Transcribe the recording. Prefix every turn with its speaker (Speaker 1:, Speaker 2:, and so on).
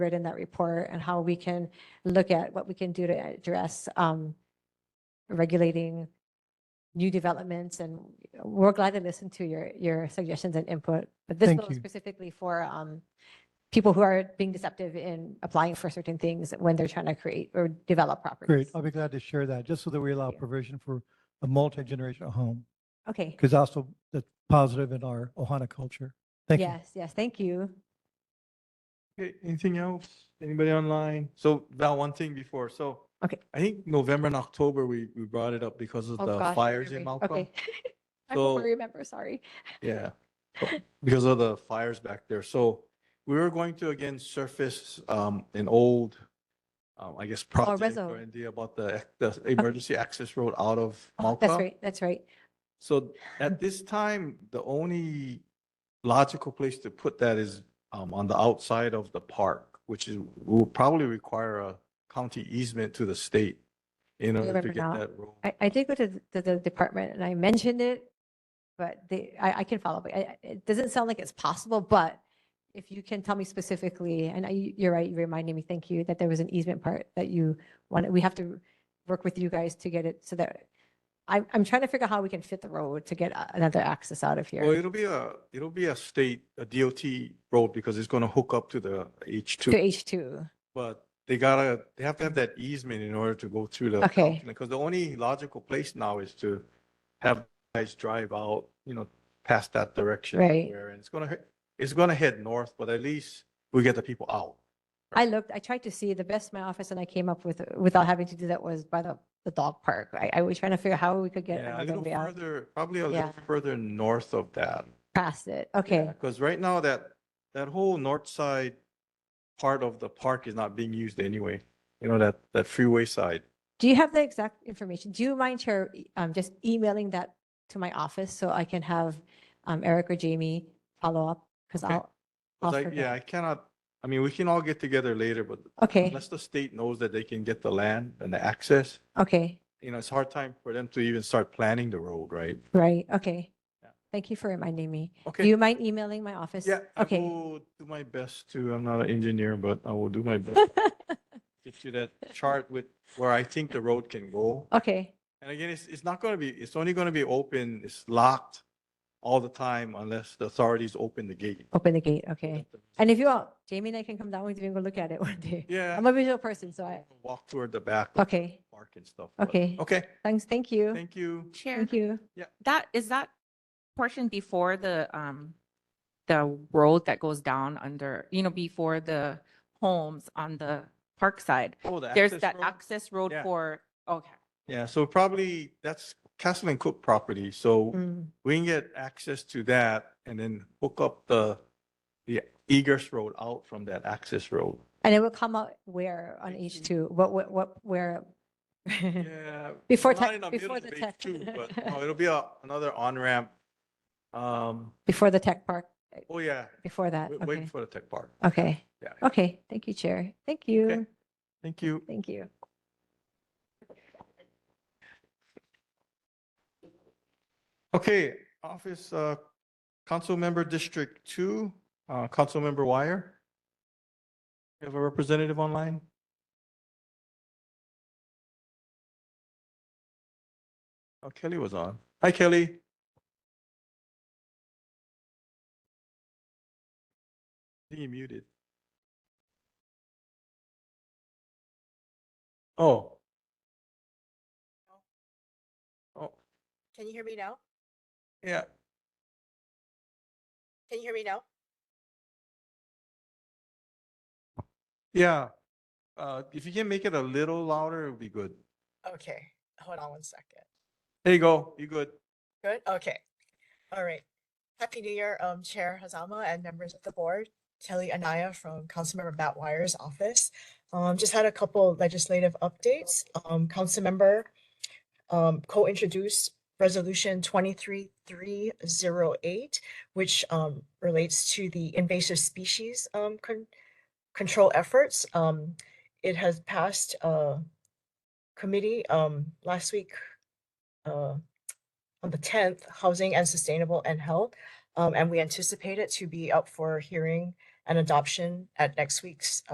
Speaker 1: grid in that report and how we can look at what we can do to address um, regulating new developments and we're glad to listen to your, your suggestions and input. But this
Speaker 2: Thank
Speaker 1: bill is
Speaker 2: you.
Speaker 1: specifically for um, people who are being deceptive in applying for certain things when they're trying to create or develop
Speaker 2: Great.
Speaker 1: properties.
Speaker 2: I'll be glad to share that, just so that we allow
Speaker 1: Yeah.
Speaker 2: provision for a multi-generational home,
Speaker 1: Okay.
Speaker 2: because also that's positive in our Ohana culture. Thank you.
Speaker 1: Yes, yes, thank you.
Speaker 3: Okay, anything else? Anybody online? So Val, one thing before, so.
Speaker 1: Okay.
Speaker 3: I think November and October, we, we brought it up because of
Speaker 1: Oh,
Speaker 3: the
Speaker 1: gosh,
Speaker 3: fires in
Speaker 1: memory.
Speaker 3: Malcolm.
Speaker 1: Okay. I don't
Speaker 3: So-
Speaker 1: remember, sorry.
Speaker 3: Yeah, but because of the fires back there. So we were going to again surface um an old, um, I guess,
Speaker 1: Oh,
Speaker 3: project
Speaker 1: Rezo.
Speaker 3: or idea about the, the emergency access road out of
Speaker 1: Oh,
Speaker 3: Malcolm.
Speaker 1: That's right, that's right.
Speaker 3: So at this time, the only logical place to put that is um, on the outside of the park, which is, will probably require a county easement to the state in order to
Speaker 1: remember
Speaker 3: get
Speaker 1: now.
Speaker 3: that road.
Speaker 1: I, I did go to th- to the department and I mentioned it, but they, I, I can follow up. I- I- It doesn't sound like it's possible, but if you can tell me specifically, and I, you're right, you reminded me, thank you, that there was an easement part that you wanted, we have to work with you guys to get it so that, I'm, I'm trying to figure out how we can fit the road to get a- another access out of
Speaker 3: Well,
Speaker 1: here
Speaker 3: it'll be a, it'll be a state, a DOT road because it's going to hook up to the
Speaker 1: to
Speaker 3: H2.
Speaker 1: H2.
Speaker 3: But they gotta, they have to have that easement in order to go through the.
Speaker 1: Okay.
Speaker 3: Because the only logical place now is to have guys drive out, you know, past that direction.
Speaker 1: Right.
Speaker 3: where- And it's gonna, he- it's gonna head north, but at least we get the people out.
Speaker 1: I looked, I tried to see the best my office and I came up with, without having to do that was by the, the dog park. I, I was trying to figure out how we could get
Speaker 3: Yeah, a
Speaker 1: another
Speaker 3: little
Speaker 1: way out
Speaker 3: further, probably a little
Speaker 1: Yeah.
Speaker 3: further north of that.
Speaker 1: past it. Okay,
Speaker 3: Because right now that, that whole north side part of the park is not being used anyway. You know, that, that freeway side.
Speaker 1: Do you have the exact information? Do you mind, Chair, e- um, just emailing that to my office so I can have, um, Eric or Jamie follow up? Cause
Speaker 3: Okay.
Speaker 1: I'll,
Speaker 3: 'Cause
Speaker 1: I'll
Speaker 3: I-
Speaker 1: forget.
Speaker 3: yeah, I cannot, I mean, we can all get together later, but
Speaker 1: Okay,
Speaker 3: unless the state knows that they can get the land and the access,
Speaker 1: okay,
Speaker 3: you know, it's hard time for them to even start planning the road, right?
Speaker 1: right, okay.
Speaker 3: Yeah.
Speaker 1: Thank you for reminding me. Do
Speaker 3: Okay.
Speaker 1: you mind emailing my office?
Speaker 3: Yeah, I
Speaker 1: Okay,
Speaker 3: will do my best to, I'm not an engineer, but I will do my best. to Get you that chart with where I think the road can go.
Speaker 1: okay,
Speaker 3: And again, it's, it's not gonna be, it's only gonna be open, it's locked all the time unless the authorities open the gate.
Speaker 1: open the gate, okay. And if you all, Jamie and I can come down with you and go look at it one day.
Speaker 3: Yeah.
Speaker 1: I'm a visual person, so I,
Speaker 3: Walk toward the back of the
Speaker 1: okay,
Speaker 3: park and stuff. but-
Speaker 1: Okay.
Speaker 3: Okay,
Speaker 1: thanks, thank you.
Speaker 3: thank you.
Speaker 4: Chair,
Speaker 1: Thank you.
Speaker 4: that, is that portion before the, um, the road that goes down under, you know, before the homes on the park side?
Speaker 3: Oh, the
Speaker 4: There's
Speaker 3: access
Speaker 4: that
Speaker 3: road?
Speaker 4: access road
Speaker 3: Yeah.
Speaker 4: for, okay.
Speaker 3: Yeah, so probably that's Castle and Cook property, so
Speaker 1: Mm.
Speaker 3: we can get access to that and then hook up the, the Egress Road out from that access road.
Speaker 1: And it will come out where on
Speaker 3: Thank you.
Speaker 1: H2? What, what, what, where?
Speaker 3: Yeah.
Speaker 1: Before
Speaker 3: not
Speaker 1: tech-
Speaker 3: in the middle
Speaker 1: before
Speaker 3: of
Speaker 1: the
Speaker 3: it
Speaker 1: tech.
Speaker 3: too, But no, it'll be a, another on-ramp. Um,
Speaker 1: Before the tech park,
Speaker 3: oh yeah,
Speaker 1: before that,
Speaker 3: wait,
Speaker 1: Uh, okay. Uh,
Speaker 3: wait for the tech park.
Speaker 1: Okay,
Speaker 3: Yeah, yeah.
Speaker 1: okay, thank you, Chair. Thank you,
Speaker 3: thank you.
Speaker 1: thank you.
Speaker 3: Okay, office, uh, council member District Two, uh, council member Wire. You have a representative online? Oh, Kelly was on. Hi, Kelly. I think you muted. Oh. Oh,
Speaker 5: Can you hear me now?
Speaker 3: yeah.
Speaker 5: Can you hear me now?
Speaker 3: Yeah. Uh, if you can make it a little louder, it would be good.
Speaker 5: Okay, hold on one second.
Speaker 3: There you go. You good?
Speaker 5: Good, okay. All right. Happy New Year, um, Chair Hazama and members of the board. Kelly Anaya from Councilmember Matt Wire's office. Um, just had a couple legislative updates. Um, Councilmember um, co-introduced Resolution twenty-three three zero eight, which um relates to the invasive species um con- control efforts. Um, it has passed uh committee um last week uh on the tenth, Housing and Sustainable and Health. Um, and we anticipate it to be up for hearing and adoption at next week's